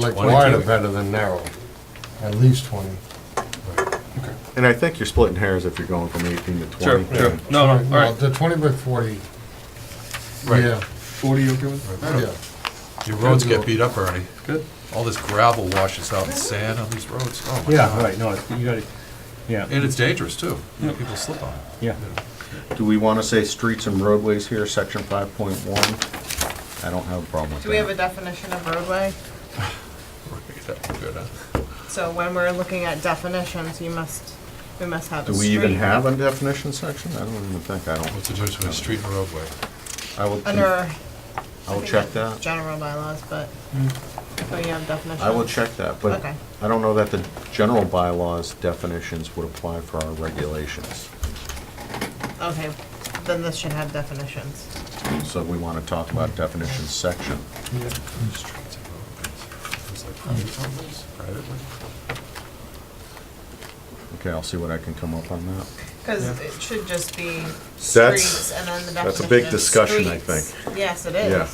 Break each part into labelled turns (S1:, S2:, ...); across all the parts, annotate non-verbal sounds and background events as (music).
S1: Like
S2: Twenty.
S1: wide are better than narrow, at least twenty.
S3: And I think you're splitting hairs if you're going from 18 to 20.
S2: Sure, sure. No, no, all
S1: Well,
S2: right.
S1: The twenty by forty,
S2: Right.
S1: yeah,
S4: Forty, you okay with?
S1: yeah.
S2: Your roads get beat up already.
S4: Good.
S2: All this gravel washes out and sand on these roads. Oh, my
S5: Yeah,
S2: God.
S5: right, no, it's- you gotta, yeah,
S2: And it's dangerous, too. People slip on it.
S5: yeah.
S3: Do we want to say streets and roadways here, section 5.1? I don't have a problem with that.
S6: Do we have a definition of roadway?
S2: That would be good, huh?
S6: So when we're looking at definitions, you must, we must have a
S3: Do
S6: street.
S3: we even have a definition section? I don't even think, I don't,
S2: What's the difference between a street and a roadway?
S3: I will,
S6: Under.
S3: I
S6: I
S3: will
S6: think
S3: check
S6: that's
S3: that.
S6: General bylaws, but, but you have definitions.
S3: I will check that, but
S6: Okay.
S3: I don't know that the general bylaws definitions would apply for our regulations.
S6: Okay, then this should have definitions.
S3: So we want to talk about definition section.
S2: Streets and roadways. It's like private roadways, private way.
S3: Okay, I'll see what I can come up on that.
S6: Because it should just be
S3: That's-
S6: streets and then the definition
S3: that's a big
S6: of
S3: discussion, I
S6: streets. Yes, it is.
S3: Yeah.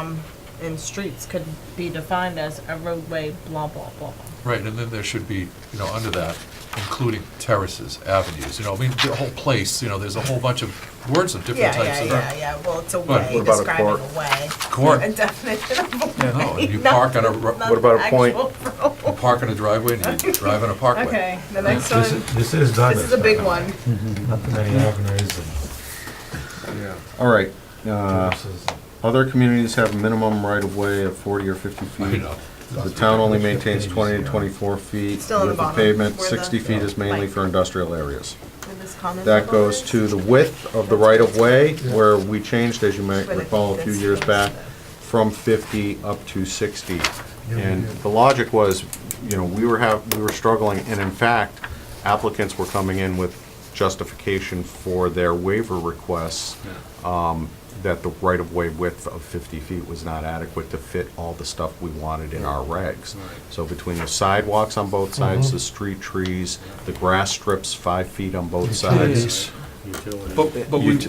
S6: Um, and streets could be defined as a roadway, blah, blah, blah. blah.
S2: Right, and then there should be, you know, under that, including terraces, avenues, you know, I mean, the whole place, you know, there's a whole bunch of words of different
S6: Yeah,
S2: types
S6: yeah,
S2: of.
S6: yeah, yeah, well, it's a
S2: But
S6: way,
S3: what about a
S6: describing
S3: court?
S6: a way. (laughs)
S2: Court.
S6: A definition of a way.
S2: No, and you
S6: not-
S2: park on a, ro-
S6: not
S3: about a
S6: an
S3: point?
S6: actual (laughs) road.
S2: you park in a driveway
S6: (laughs)
S2: and you drive on a parkway.
S6: Okay, the next one,
S7: This is- This is done.
S6: this is a big one.
S7: Not too many avenues and
S3: All right, uh,
S7: houses.
S3: other communities have a minimum right-of-way of 40 or 50 feet.
S2: You know,
S3: The town only maintains twenty to twenty-four feet
S6: Still on the
S3: width of
S6: bottom,
S3: pavement,
S6: where
S3: sixty
S6: the-
S3: feet is mainly for industrial areas.
S6: With this comment
S3: That
S6: about
S3: goes
S6: it.
S3: to the width of the right-of-way, where we changed, as you might
S6: But I
S3: recall, a
S6: think
S3: few
S6: this
S3: years
S6: goes
S3: back,
S6: to the-
S3: from fifty up to sixty.
S1: yeah,
S3: And
S1: yeah.
S3: the logic was, you know, we were have, we were struggling, and in fact, applicants were coming in with justification for their waiver requests, um, that the right-of-way width of fifty feet was not adequate to fit all the stuff we wanted in our regs. So between the sidewalks on both sides, the street trees, the grass strips five feet on both sides.
S2: But, but we,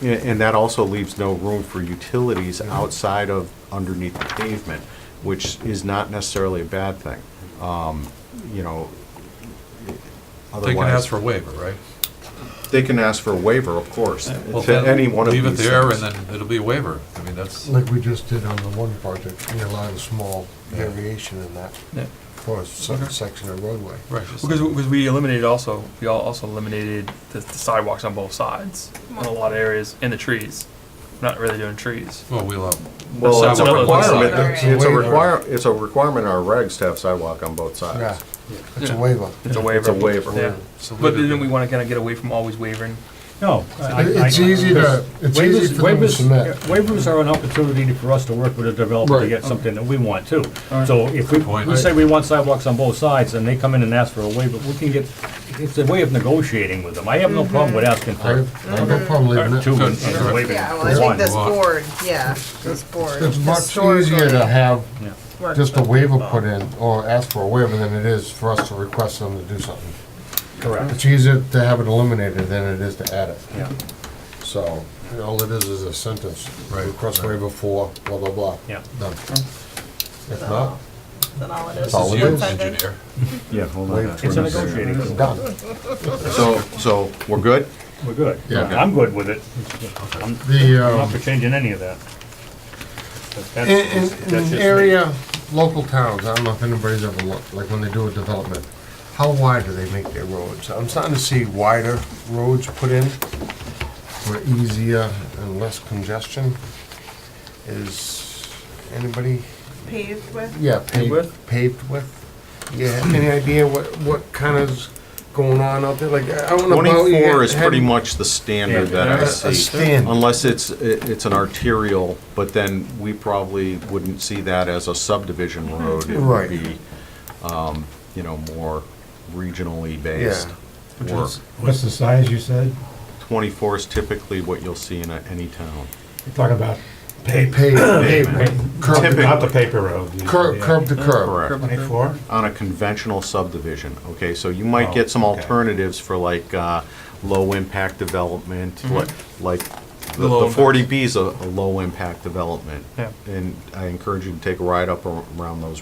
S3: Yeah, And that also leaves no room for utilities
S2: Mm-hmm.
S3: outside of underneath the pavement, which is not necessarily a bad thing. Um, You know,
S2: they can ask
S3: otherwise,
S2: for a waiver, right?
S3: they can ask for a waiver, of course,
S2: Well,
S3: to
S2: then
S3: any one of these
S2: Leave it there and
S3: things.
S2: then it'll be a waiver. I mean, that's,
S1: Like we just did on the one project, we allowed a small variation in that for a se- section of roadway.
S2: right. just-
S4: Because, because we eliminated also, we all also eliminated the the sidewalks on both sides, in a lot of areas, and the trees. Not really doing trees.
S2: Well, we'll, uh,
S3: Well, it's a
S4: Sidewalk on both
S3: requirement,
S6: sides.
S3: it's a
S1: Waiver.
S3: require, it's a requirement in our regs to have sidewalk on both
S1: Yeah,
S3: sides.
S1: it's a waiver.
S4: It's a waiver.
S3: It's a waiver.
S4: Yeah.
S2: so
S4: But
S2: leave it
S4: then we
S2: there.
S4: wanna kinda get away from always wavering.
S5: No.
S2: Oh.
S5: I- I-
S1: It's easy to, it's easy for
S5: Waivers,
S1: them to
S5: waivers,
S1: submit.
S5: waivers are an opportunity for us to work with a developer
S1: Right.
S5: to get something that we want too. So if we,
S2: point.
S5: we say we want sidewalks on both sides and they come in and ask for a waiver, we can get, it's a way of negotiating with them. I have no
S6: Mm-hmm.
S5: problem with asking
S1: I
S5: for
S1: have I have no problem leaving
S5: two
S1: it.
S5: and
S2: Sure.
S5: and waiving
S6: Yeah, well, I
S5: for
S6: think this
S5: one.
S2: Wow.
S6: board, yeah, this board.
S1: It's much
S6: historically
S1: easier to have
S5: Yeah.
S6: works
S1: just a
S6: with-
S1: waiver put in, or ask for a waiver than it is for us to request them to do something.
S5: Correct,
S1: It's easier to have it eliminated than it is to add it.
S5: yeah,
S1: So, all it is is a sentence,
S2: Right,
S1: request
S2: right.
S1: waiver for blah, blah, blah.
S5: yeah.
S1: Done. If not,
S6: Then all it is.
S1: all
S6: is
S1: it
S2: You,
S6: one
S1: is.
S6: sentence.
S2: engineer.
S3: Yeah, hold
S1: on.
S5: It's a negotiating,
S1: it's
S5: tool.
S1: done.
S3: So, so, we're good?
S5: we're good.
S1: Yeah.
S5: I'm good with it. I'm
S1: The,
S5: I'm not
S1: um,
S5: for changing any of that. But that's-
S1: in,
S5: that's
S1: in,
S5: just
S1: in
S5: me.
S1: area, local towns, I don't know if anybody's ever looked, like when they do a development, how wide do they make their roads? I'm starting to see wider roads put in for easier and less congestion. Is anybody,
S6: Paved with,
S1: yeah, paved,
S4: with?
S1: paved with? Yeah, any idea what, what kind of's going on out there? Like, I don't know about.
S3: Twenty-four is
S1: had-
S3: pretty much the standard
S5: Yeah,
S3: that I
S1: a- a
S3: see.
S1: standard.
S3: Unless it's, i- it's an arterial, but then we probably wouldn't see that as a subdivision road. It
S1: Right.
S3: would be, um, you know, more regionally based
S1: Yeah.
S3: work.
S7: What's the size you said?
S3: Twenty-four is typically what you'll see in a- any town.
S7: You're talking about
S1: Paved,
S7: paper,
S1: paved, curb, to-
S7: not the paper road. you-
S1: curb,
S7: yeah.
S1: curb to curb.
S3: Correct.
S7: Twenty-four?
S3: on a conventional subdivision, okay? So you might
S7: Oh,
S3: get some
S7: okay.
S3: alternatives for like uh, low-impact development, li- like The
S4: low
S3: the
S4: impact.
S3: 40B is a low-impact development.
S4: Yeah.
S3: And I encourage you to take a ride up ar- around those